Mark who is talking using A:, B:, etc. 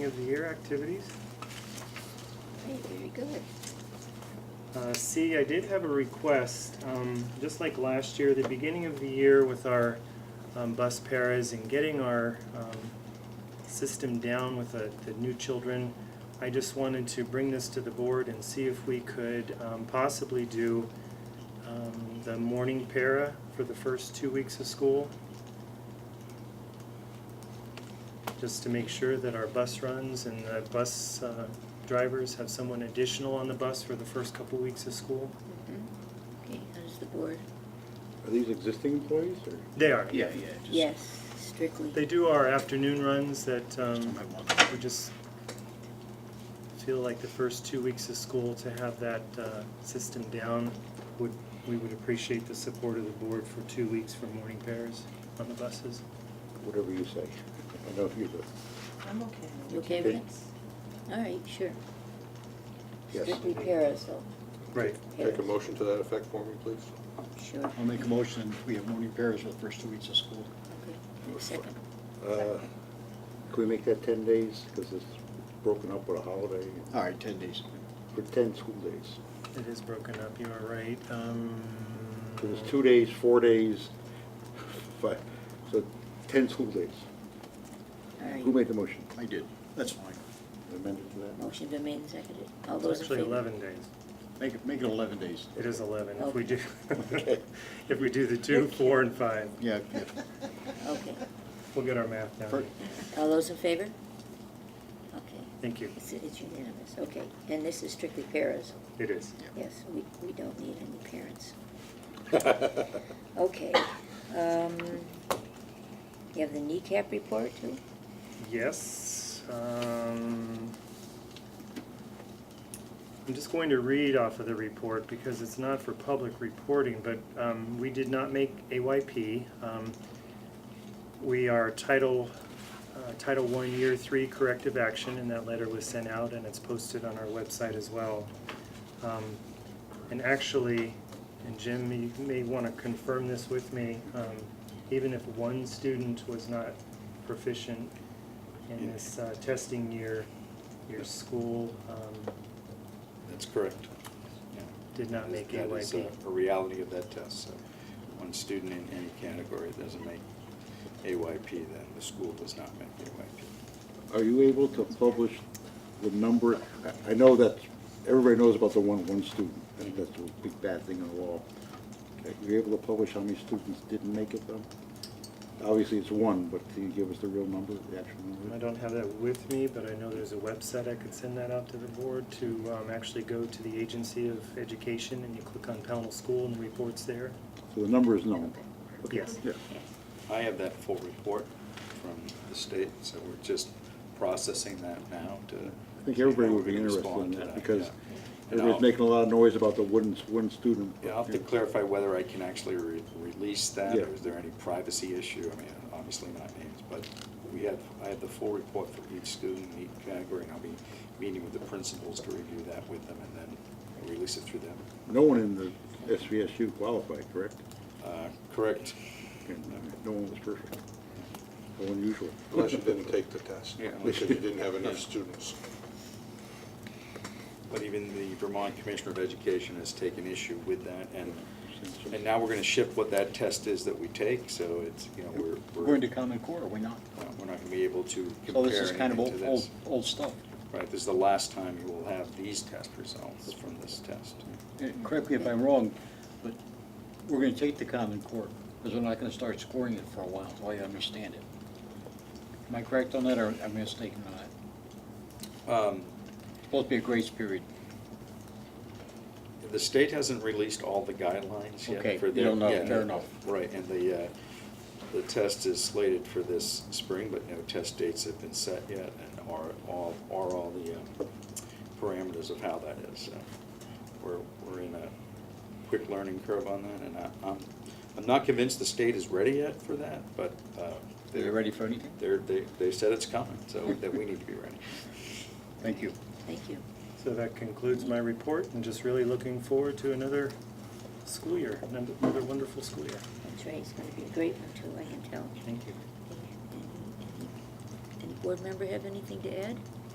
A: Of the year activities.
B: Hey, very good.
A: Uh, C, I did have a request, um, just like last year, the beginning of the year with our um, bus paras and getting our um, system down with the, the new children, I just wanted to bring this to the board and see if we could um, possibly do um, the morning para for the first two weeks of school. Just to make sure that our bus runs and the bus uh, drivers have someone additional on the bus for the first couple weeks of school?
B: Mm-hmm. Okay, how does the board?
C: Are these existing employees or?
A: They are.
D: Yeah, yeah, just.
B: Yes, strictly.
A: They do our afternoon runs that um,
D: I want-
A: we just feel like the first two weeks of school to have that uh, system down would, we would appreciate the support of the board for two weeks for morning pairs on the buses.
C: Whatever you say. I know you're the,
E: I'm okay.
B: You okay with it? All right, sure.
C: Yes.
B: Strictly paras, though.
A: Right.
B: Paras.
F: Make a motion to that effect for me, please.
B: Sure, okay.
D: I'll make a motion, we have morning pairs for the first two weeks of school.
B: And a Second.
C: uh, can we make that ten days? Because it's broken up with a holiday
D: All right, ten days.
C: for ten school days.
A: It is broken up, you are right. Um,
C: 'Cause it's two days, four days, five, so ten school days. Who
B: All right.
C: made the motion?
D: I did. That's fine.
C: Amended to that?
B: Motion been made and seconded. All
A: It's
B: Oh, those in favor?
A: actually 11 days.
D: Make it, make it eleven days.
A: It is 11 if we do,
C: Okay.
A: if we do the two, four, and five.
D: Yeah, yeah.
B: Okay.
A: We'll get our math down.
D: Perfect.
B: All those in favor? Okay.
A: Thank you.
B: It's it's unanimous, okay. And this is strictly paras?
A: It is.
B: Yes, we, we don't need any parents. Okay. Um, You have the kneecap report, too?
A: Yes. um, I'm just going to read off of the report because it's not for public reporting, but um, we did not make AYP. Um, We are Title, uh, Title One Year Three Corrective Action, and that letter was sent out and it's posted on our website as well. Um, And actually, and Jim, you may want to confirm this with me, um, even if one student was not proficient in this uh, testing year, your school um,
F: That's correct.
G: Yeah.
A: did not make
G: That is uh,
A: AYP.
G: a- a reality of that test, so one student in any category doesn't make AYP, then the school does not make AYP.
C: Are you able to publish the number? I- I know that, everybody knows about the one, one student. I think that's a big bad thing in the law. Okay, You're able to publish how many students didn't make it though? Obviously, it's one, but can you give us the real number, the actual
A: I
C: number?
A: don't have that with me, but I know there's a website I could send that out to the board to um, actually go to the Agency of Education and you click on Pownell School and the report's there.
C: So the number is known. Okay,
A: Yes.
C: Yeah.
G: I have that full report from the state, so we're just processing that now to.
C: I think everybody
G: how
C: would be
G: we
C: interested
G: respond
C: in
G: to
C: that because
G: yeah. And
C: everybody's
G: I'll-
C: making a lot of noise about the one, one student.
G: Yeah, I'll have to clarify whether I can actually re- release that,
C: Yeah.
G: or is there any privacy issue? I mean, obviously not names, but we have, I have the full report for each student, in each category, and I'll be meeting with the principals to review that with them, and then I'll release it through them.
C: No one in the SVSU qualified, correct?
G: Uh, Correct?
C: And, uh, No one was perfect. No unusual.
F: Unless you didn't take the test.
G: Yeah.
F: Because you didn't have enough students.
G: But even the Vermont Commissioner of Education has taken issue with that, and, and now we're gonna ship what that test is that we take, so it's, you know, we're,
D: We're
G: we're,
D: into common core, are we not?
G: uh, we're not gonna be able to compare
D: So this is kind of
G: anything to
D: old, old,
G: this.
D: old stuff.
G: Right, this is the last time you will have these test results from this test.
D: And Correct me if I'm wrong, but we're gonna take the common core, because we're not gonna start scoring it for a while, until I understand it. Am I correct on that, or am I mistaken on that?
G: Um,
D: It's supposed to be a grace period.
G: The state hasn't released all the guidelines
D: Okay,
G: yet for
D: you
G: their.
D: don't know,
G: yeah,
D: fair enough.
G: Right, and the, uh, the test is slated for this spring, but no test dates have been set yet, and are all, are all the um, parameters of how that is. So We're, we're in a quick learning curve on that, and I- I'm, I'm not convinced the state is ready yet for that, but. uh,
D: Are you ready for anything?
G: They're, they, they said it's coming, so that we need to be ready.
D: Thank you.
B: Thank you.
A: So that concludes my report and just really looking forward to another school year, another another wonderful school year.
B: That's right, it's gonna be a great one, too, I can tell.
A: Thank you.
B: And- and- and board member have anything to add?